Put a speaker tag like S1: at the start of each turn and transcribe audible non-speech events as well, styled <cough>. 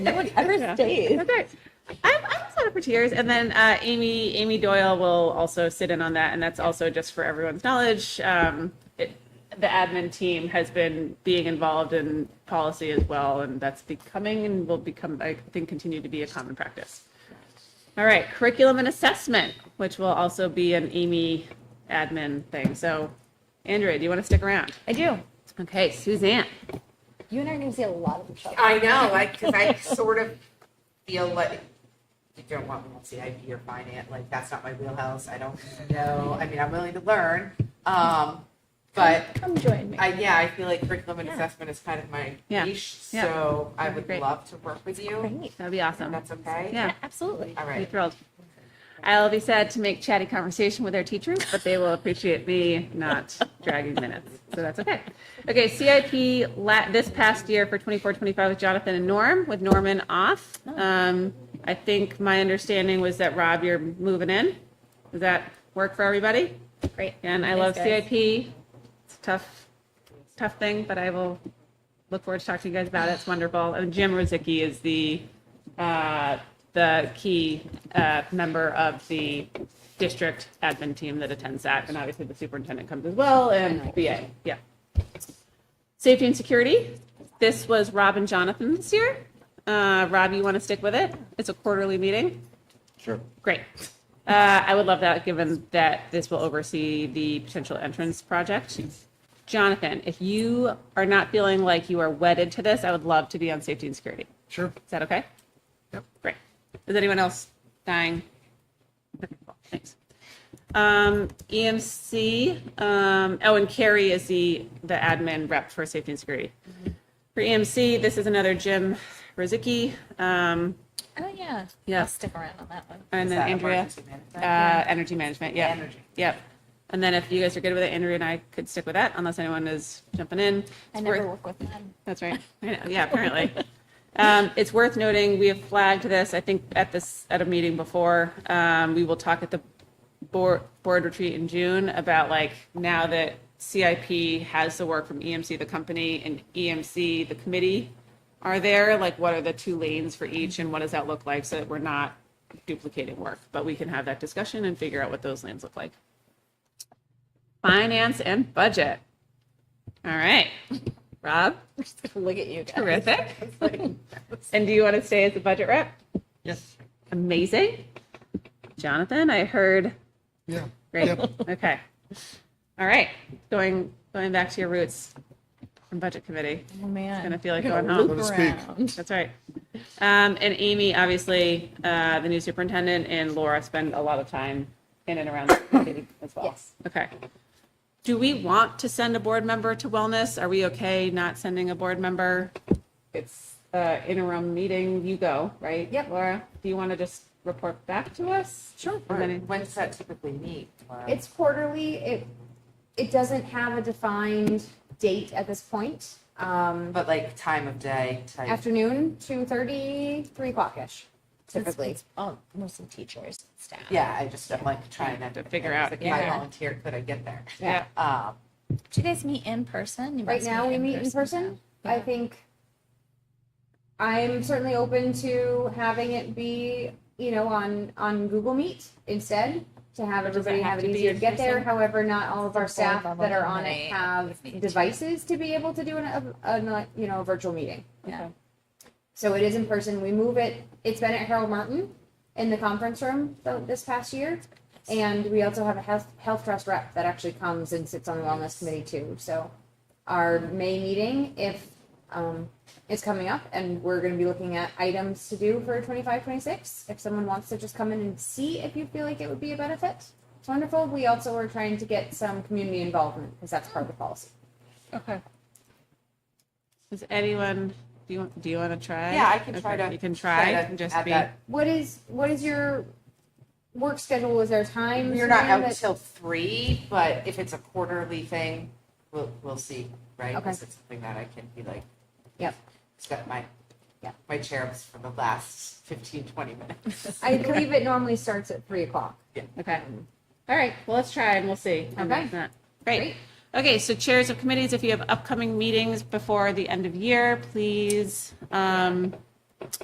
S1: No one ever stays.
S2: Okay. I'm, I'm set up for tears, and then uh, Amy Amy Doyle will also sit in on that, and that's also just for everyone's knowledge. Um, it, the admin team has been being involved in policy as well, and that's becoming and will become, I think, continue to be a common practice. All right, curriculum and assessment, which will also be an Amy admin thing. So, Andrea, do you want to stick around?
S1: I do.
S2: Okay, Suzanne.
S1: You and I are going to see a lot of each other.
S3: I know, like, because I sort of feel like you don't want me to see IP or finance. Like, that's not my wheelhouse. I don't know. I mean, I'm willing to learn. Um, but
S1: Come join me.
S3: I, yeah, I feel like curriculum and
S1: Yeah.
S3: assessment is kind of my
S2: Yeah.
S3: niche.
S2: Yeah.
S3: So I
S2: That'd be
S3: would
S2: great.
S3: love to work with you.
S1: Great.
S2: That'd be
S3: If
S2: awesome.
S3: that's okay.
S2: Yeah.
S1: Absolutely.
S3: All
S2: Be
S3: right.
S2: thrilled. I'll be sad to make chatty conversation with our teachers, but they will appreciate me not dragging minutes. So that's okay. Okay, CIP la- this past year for 24, 25 with Jonathan and Norm, with Norman off. Um, I think my understanding was that Rob, you're moving in. Does that work for everybody?
S1: Great.
S2: And I
S1: Thanks,
S2: love
S1: guys.
S2: CIP. It's a tough, tough thing, but I will look forward to talking to you guys about it. It's wonderful. And Jim Rozicki is the, uh, the key uh, member of the district admin team that attends that. And obviously the superintendent comes as well and BA. Yeah. Safety and security. This was Rob and Jonathan this year. Uh, Rob, you want to stick with it? It's a quarterly meeting.
S4: Sure.
S2: Great. Uh, I would love that, given that this will oversee the potential entrance project. Jonathan, if you are not feeling like you are wedded to this, I would love to be on safety and security.
S4: Sure.
S2: Is that okay?
S4: Yep.
S2: Great. Is anyone else dying? Thanks. Um, EMC, um, oh, and Carrie is the, the admin rep for safety and security.
S3: Mm-hmm.
S2: For EMC, this is another Jim Rozicki, um,
S1: Oh, yeah.
S2: Yeah.
S1: I'll stick around on that one.
S2: and
S3: Is
S2: then
S3: that
S2: Andrea.
S3: emergency management?
S2: Uh, energy management, yeah.
S3: Energy.
S2: Yep. And then if you guys are good with it, Andrea and I could stick with that unless anyone is jumping in.
S1: I
S2: It's
S1: never
S2: worth-
S1: work with them. <laughs>
S2: That's right. <laughs> I know. Yeah, apparently. Um, it's worth noting, we have flagged this, I think at this, at a meeting before. Um, we will talk at the board, board retreat in June about like now that CIP has the work from EMC, the company and EMC, the committee are there, like what are the two lanes for each and what does that look like so that we're not duplicating work? But we can have that discussion and figure out what those lanes look like. Finance and budget. All right. Rob?
S1: Look at you guys.
S2: Terrific. <laughs> And do you want to stay as the budget rep?
S4: Yes.
S2: Amazing. Jonathan, I heard,
S4: Yeah.
S2: great,
S4: Yep.
S2: okay. All right, going, going back to your roots from budget committee.
S1: Oh, man.
S2: Gonna feel like
S1: Gonna
S2: going home.
S1: loop
S4: So to speak.
S1: around.
S2: That's right. Um, and Amy, obviously, uh, the new superintendent and Laura spend a lot of time in and around the committee as well.
S1: Yes.
S2: Okay. Do we want to send a board member to wellness? Are we okay not sending a board member? It's, uh, interim meeting, you go, right?
S1: Yep.
S2: Laura, do you want to just report back to us?
S1: Sure.
S2: And then-
S3: When does that typically meet? Laura?
S5: It's quarterly. It, it doesn't have a defined date at this point. Um,
S3: but like time of day type.
S5: afternoon, 2:30, 3 o'clock-ish typically.
S1: Oh, mostly teachers and staff.
S3: yeah, I just am like trying to,
S2: To figure out,
S3: Like,
S2: yeah.
S3: I volunteer, could I get there?
S2: Yeah.
S3: Um,
S1: Do you guys meet in person? You
S5: Right
S1: must
S5: now, we meet in person. I
S1: Yeah.
S5: think I'm certainly open to having it be, you know, on, on Google Meet instead, to have
S1: Does it
S5: everybody
S1: have
S5: have
S1: to
S5: it
S1: be
S5: easier
S1: in
S5: to get there.
S1: person?
S5: However, not all of our
S1: It's a board
S5: staff
S1: level
S5: that are on
S1: committee.
S5: it have
S1: Need to.
S5: devices to be able to do an, a, a, you know, a virtual meeting.
S1: Yeah.
S5: So it is in person. We move it. It's been at Harold Martin in the conference room th- this past year. And we also have a health, health trust rep that actually comes and sits on the wellness committee too. So our May meeting, if, um, is coming up and we're going to be looking at items to do for 25, 26. If someone wants to just come in and see if you feel like it would be a benefit, it's wonderful. We also are trying to get some community involvement because that's part of the policy.
S1: Okay.
S2: Does anyone, do you, want- do you want to try?
S3: Yeah, I can try
S2: Okay,
S3: to-
S2: You can try
S3: try to
S2: and just
S3: add
S2: be,
S3: that.
S5: What is, what is your work schedule? Is there time?
S3: You're not out till three, but if it's a quarterly thing, we'll, we'll see, right?
S5: Okay.
S3: Because it's something that I can be like,
S5: Yep.
S3: it's got my,
S5: Yep.
S3: my cherubs for the last 15, 20 minutes.
S5: I believe it normally starts at three o'clock.
S2: okay. All right, well, let's try and we'll see. And
S5: Okay.
S2: if not- Great. Okay, so chairs of committees, if you have upcoming meetings before the end of year, please um,